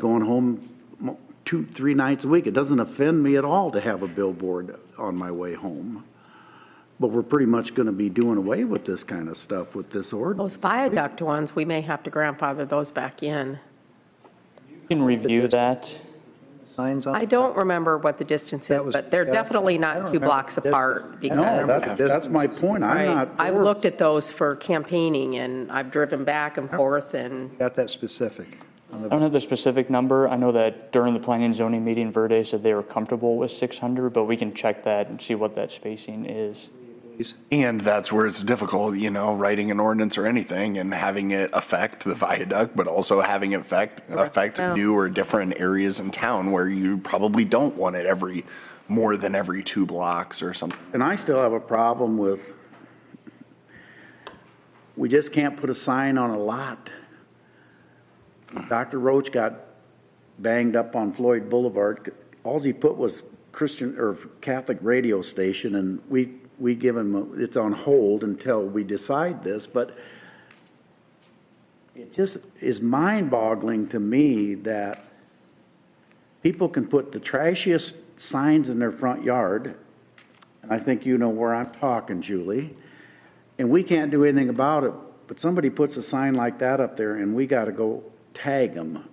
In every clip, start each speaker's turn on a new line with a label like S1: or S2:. S1: going home mo- two, three nights a week. It doesn't offend me at all to have a billboard on my way home. But we're pretty much going to be doing away with this kind of stuff with this ordinance.
S2: Those viaduct ones, we may have to grandfather those back in.
S3: You can review that.
S4: signs on?
S2: I don't remember what the distance
S4: That
S2: is,
S4: was-
S2: but they're
S4: yeah,
S2: definitely
S4: I don't
S2: not two
S4: remember
S2: blocks
S4: the
S2: apart
S4: distance. I
S1: No,
S4: don't
S2: because,
S4: remember.
S1: that's, that's my point. I'm
S2: Oh, right,
S1: not.
S2: I've
S1: for-
S2: looked at those for campaigning and I've driven back and forth and
S4: Got that specific. on
S3: I
S4: the-
S3: don't have the specific number. I know that during the planning and zoning meeting, Verde said they were comfortable with 600, but we can check that and see what that spacing is.
S5: And that's where it's difficult, you know, writing an ordinance or anything and having it affect the viaduct, but also having it affect, affect
S2: Yeah.
S5: new or different areas in town where you probably don't want it every, more than every two blocks or something.
S1: And I still have a problem with, we just can't put a sign on a lot. Dr. Roach got banged up on Floyd Boulevard. Alls he put was Christian or Catholic radio station and we, we give him, a- it's on hold until we decide this, but it just is mind boggling to me that people can put the trashiest signs in their front yard and I think you know where I'm talking, Julie. And we can't do anything about it, but somebody puts a sign like that up there and we gotta go tag them.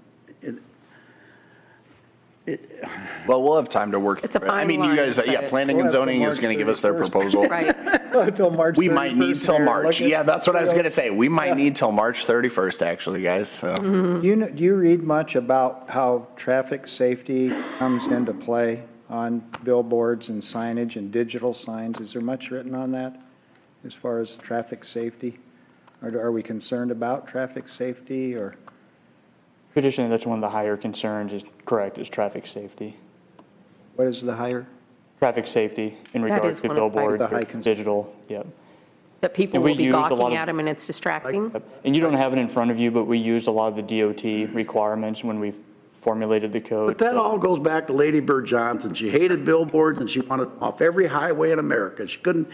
S5: Well, we'll have time to work.
S2: It's a
S5: through it. I
S2: fine
S5: mean, you
S2: line,
S5: guys,
S2: but
S5: yeah,
S2: it-
S5: planning
S4: We'll
S5: and
S4: have till
S5: zoning is
S4: March
S5: going to give us their
S4: 31st.
S5: proposal.
S2: Right.
S4: Till March
S5: We might
S4: 31st
S5: need till
S4: here,
S5: March.
S4: look at-
S5: Yeah, that's what I was
S4: you know,
S5: going to say. We might need till March 31st, actually, guys.
S2: Mm-hmm.
S5: So
S4: Do you, kn- do you read much about how traffic safety comes into play on billboards and signage and digital signs? Is there much written on that as far as traffic safety? Or do- are we concerned about traffic safety or?
S3: Traditionally, that's one of the higher concerns, is correct, is traffic safety.
S4: What is the higher?
S3: Traffic safety in
S2: That
S3: regards
S2: is
S3: to
S2: one of the high-
S3: billboards,
S4: The high concern.
S3: digital, yep.
S2: that people
S3: And we
S2: will be
S3: used a lot
S2: gawking
S3: of-
S2: at them and it's distracting.
S3: And you don't have it in front of you, but we used a lot of the DOT requirements when we formulated the
S1: But
S3: code.
S1: that all goes back to Lady Bird Johnson. She hated billboards and she wanted off every highway in America. She couldn't,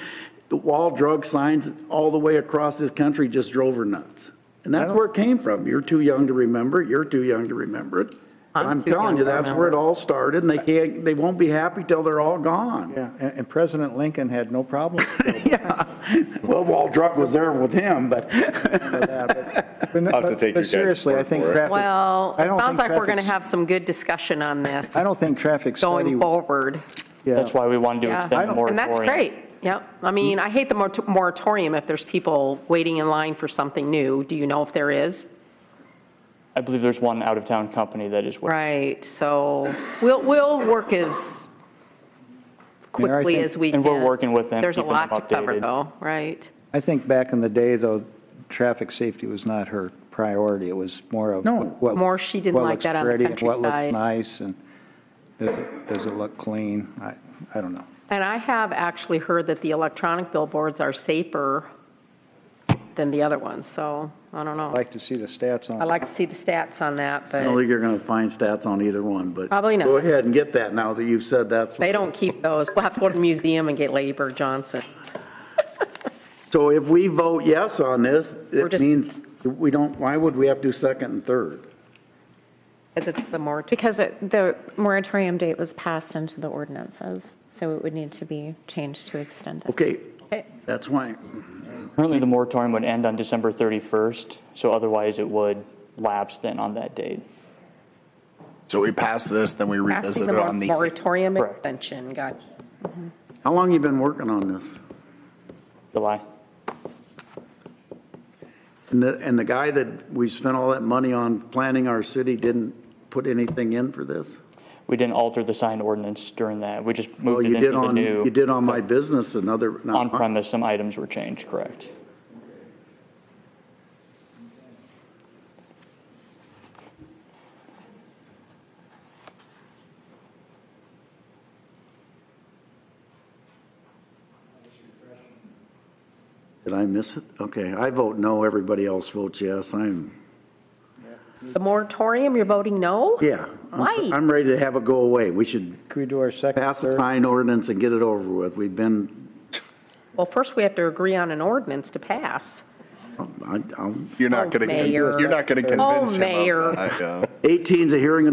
S1: the wall drug signs all the way across this country just drove her nuts. And that's where it came from. You're too young to remember. it. You're too young to remember it.
S2: I'm
S1: I'm
S2: too
S1: telling
S2: young
S1: you,
S2: to
S1: that's where it all started and they can't, they won't be happy till they're all gone.
S4: Yeah, and, and President Lincoln had no problem with
S1: Well, Wall Drug was there with him, but.
S4: that. but- but-
S6: I'll have to take your
S4: But
S6: guys'
S4: seriously, I
S6: word
S4: think
S6: for it.
S4: traffic.
S2: Well,
S4: I
S2: it
S4: don't
S2: sounds
S4: think
S2: like we're going to
S4: traffic's-
S2: have some good discussion on this
S4: I don't think traffic study.
S2: going forward.
S4: yeah.
S3: That's why we wanted to
S2: Yeah.
S3: extend the
S2: And
S3: moratorium.
S2: that's great. Yeah. I mean, I hate the mor- moratorium if there's people waiting in line for something new. Do you know if there is?
S3: I believe there's one out-of-town company that is.
S2: Right, so we'll, we'll work as
S4: mean, I
S2: quickly
S4: think-
S2: as we can.
S3: And we're working with them,
S2: There's a
S3: keeping them
S2: lot to cover,
S3: updated.
S2: though, right?
S4: I think back in the day, though, traffic safety was not her priority. It was more of.
S1: No.
S4: what-
S2: More she didn't
S4: what
S2: like
S4: looks
S2: that on the
S4: pretty and What
S2: countryside.
S4: looks nice and does it- does it look clean? I, I don't know.
S2: And I have actually heard that the electronic billboards are safer than the other ones, so I don't know.
S4: I'd like to see the stats on.
S2: I'd like to see the stats on that,
S1: I don't
S2: but
S1: think you're gonna find stats on either one, but.
S2: Probably not.
S1: Go ahead and get that now that you've said that's.
S2: they don't keep those. We'll have to go to the museum and get Lady Bird Johnson.
S1: So if we vote yes on this,
S2: We're
S1: it
S2: just-
S1: means we don't, why would we have to do second and third?
S2: Is it the moratorium?
S7: Because it- the moratorium date was passed into the ordinances, so it would need to be changed to extend it.
S1: Okay,
S2: Okay.
S1: that's why.
S3: Currently, the moratorium would end on December 31st, so otherwise it would lapse then on that date.
S5: so we pass this, then we
S2: Asking
S5: revisit
S2: the
S5: it
S2: mor-
S5: on the
S2: moratorium
S3: Correct.
S2: extension, gotcha.
S1: How long you been working on this?
S3: July.
S1: And the, and the guy that we spent all that money on planning our city didn't put anything in for this?
S3: We didn't alter the sign ordinance during that. We just
S1: Well,
S3: moved
S1: Oh, you
S3: it into
S1: did
S3: the
S1: on, you
S3: new,
S1: did on my business another. not mine.
S3: on-premise, some items were changed, correct?
S1: Did I miss it? Okay, I vote no, everybody else votes yes, I'm,
S2: The moratorium, you're voting no?
S1: yeah. I'm-
S2: Why?
S1: I'm ready to have it go away. We should
S4: Can we do our second,
S1: pass the
S4: third?
S1: sign ordinance and get it over with. We've been,
S2: Well, first we have to agree on an ordinance to pass.
S1: I- I'm-
S5: You're not
S2: Oh,
S5: going to,
S2: Mayor.
S5: you're not going to
S2: Oh,
S5: convince him
S2: Mayor. Oh,
S5: of that. yeah.
S1: 18 is a hearing of